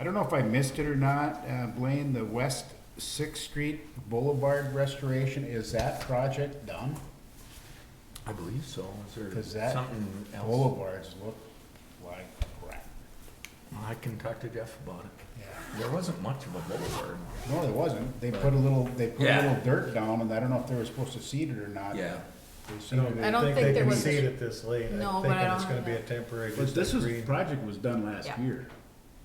I don't know if I missed it or not, uh, Blaine, the West Sixth Street Boulevard restoration, is that project done? I believe so. Is Because there that something else? boulevards look like crap. I can talk to Jeff about it. Yeah. There wasn't much of a boulevard. No, there wasn't. They put a little, they put a Yeah. little dirt down and I don't know if they were supposed to seed it or not. Yeah. They seeded I it. don't think they there can was- see it at this late. I'm No, but thinking I don't It's gonna have be a that. temporary, But just this a was, green. project was done last Yeah. year.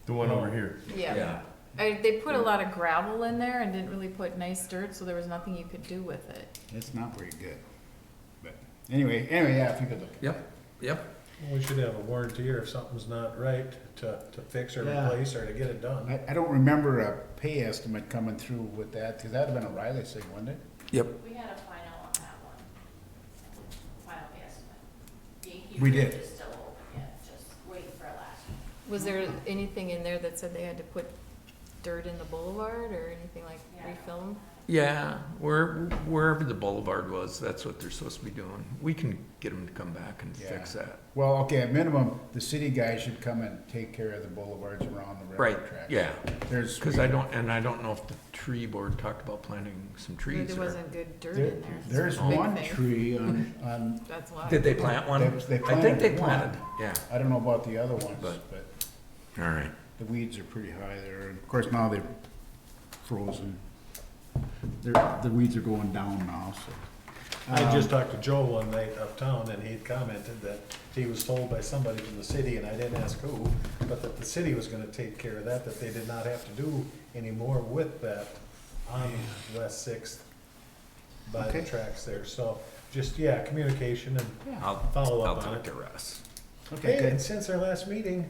The one over here. Yeah. I, they put a lot of gravel in there and didn't really put nice dirt, so there was nothing you could do with it. It's not very good. But anyway, anyway, yeah, if you could look. at Yep, yep. We should have a warranty if something's not right to, to fix or Yeah. replace or to get it it. done. I, I don't remember a pay estimate coming through with that, cause that'd have been a Riley thing, wouldn't it? Yep. We had a final on that one, final estimate. Yankee We Ridge did. is still open yet, just waiting for a last one. Was there anything in there that said they had to put dirt in the boulevard or anything like Yeah. refilm? Yeah, where, wherever the boulevard was, that's what they're supposed to be doing. We can get them to come back and fix Yeah. that. Well, okay, at minimum, the city guys should come and take care of the boulevards around the Right, railroad tracks. yeah. There's, Cause I don't, and I don't know if the tree board talked about planting some There trees or. wasn't good dirt there, in there. there's It's a big one thing. tree on, on, That's why. Did they plant one? They- they I think they planted one. planted, yeah. I don't know about the other ones, But- but All right. the weeds are pretty high there. And Of course, now they're frozen. They're, the weeds are going down now, so. Um, I just talked to Joe one night uptown and he had commented that he was told by somebody from the city, and I didn't ask who, but that the city was gonna take care of that, that they did not have to do anymore with that on West Sixth by the Okay. tracks there. So just, yeah, communication and I'll, Follow I'll up on talk it. to Russ. Okay, Hey, and good. since our last meeting,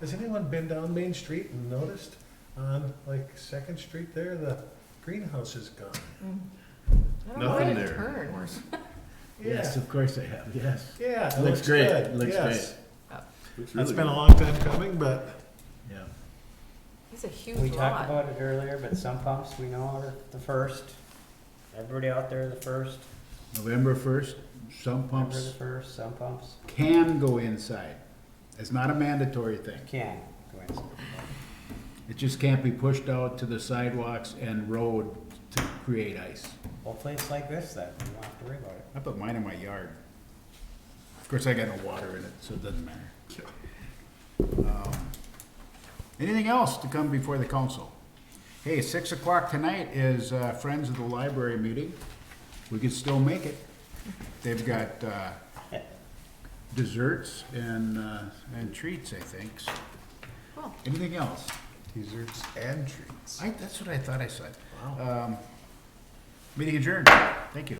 has anyone been down Main Street and noticed on like Second Street there, the greenhouse is gone? Mm. I don't know where Nothing to there. turn. Yeah, of course I have, yes. yeah, it Looks looks great, good, looks yes. Looks That's really been good. a long time coming, but Yeah. It's a huge lot. We talked about it earlier, but some pumps we know are the first. Everybody out there, the first. November first, some Remember pumps the first, some pumps can go inside. It's not a mandatory thing. can go inside. It just can't be pushed out to the sidewalks and road to create ice. Hopefully it's like this then, we won't have to worry about it. I put mine in my yard. Of course, I got no water in it, so it doesn't matter. Um, Anything else to come before the council? Hey, six o'clock tonight is uh, Friends of the Library meeting. We could still make it. They've got uh, desserts and, uh, and treats, I think. Cool. Anything else? desserts and treats. I, that's what I thought I said. Wow. Um, Meeting adjourned. Thank you.